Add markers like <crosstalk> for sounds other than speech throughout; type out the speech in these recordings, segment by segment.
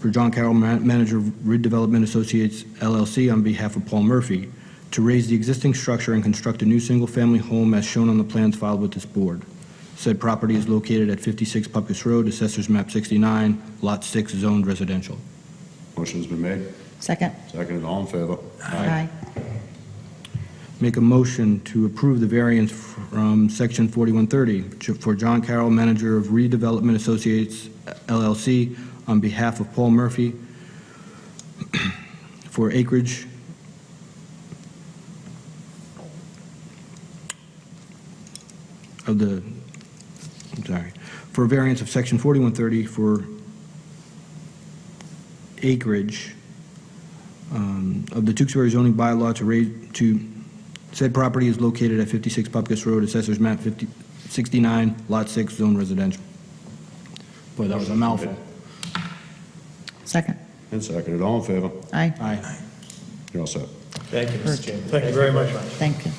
for John Carroll, ma- manager of Redevelopment Associates LLC, on behalf of Paul Murphy, to raise the existing structure and construct a new single-family home as shown on the plans filed with this board. Said property is located at 56 Pupkus Road, Assessors Map 69, Lot 6, zoned residential. Motion's been made. Second. Seconded. All in favor? Aye. Make a motion to approve the variance from Section 4130 to- for John Carroll, manager of Redevelopment Associates LLC, on behalf of Paul Murphy <clears throat> for acreage of the, I'm sorry, for a variance of Section 4130 for acreage um, of the Tewksbury zoning bylaw to raise, to, said property is located at 56 Popkus Road, Assessors Map 50 69, Lot 6, Zone Residential. Boy, that was a mouthful. Second. And seconded. All in favor? Aye. Aye. You're all set. Thank you, Mr. Chairman. Thank you very much. Thank you.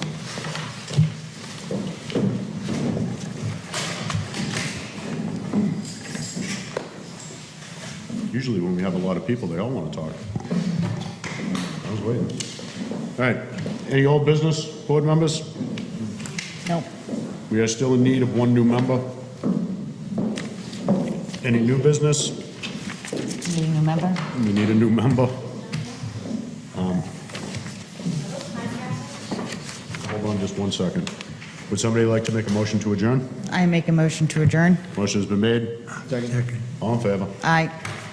Usually when we have a lot of people, they all want to talk. I was waiting. All right. Any old business, board members? Nope. We are still in need of one new member. Any new business? Do you remember? We need a new member. Um, Hold on just one second. Would somebody like to make a motion to adjourn? I make a motion to adjourn. Motion's been made. Second. All in favor? Aye.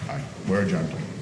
Aye. We're adjourned.